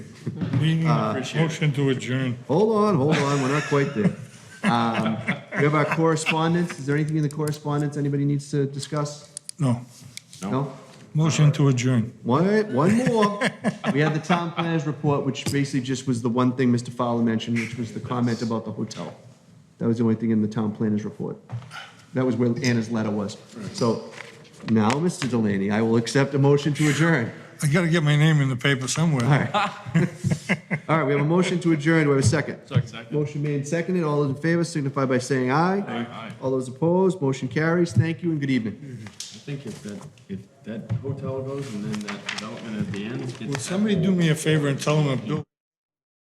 Meeting Uh, Motion to adjourn. Hold on, hold on, we're not quite there. Um, We have our correspondence. Is there anything in the correspondence anybody needs to discuss? No. No? Motion to adjourn. One, one more. We had the town planners report, which basically just was the one thing Mr. Fowler mentioned, which was the comment about the hotel. That was the only thing in the town planners report. That was where Anna's letter was. So now, Mr. Delaney, I will accept a motion to adjourn. I gotta get my name in the paper All somewhere. right. All right, we have a motion to adjourn. Do we have a second? Second. Motion made and seconded. All those in favor signify by saying aye. Aye. All those opposed, motion carries. Thank you and good evening. I think if that, if that hotel goes and then that development at the end. Will somebody do me a favor and tell them I'm doing?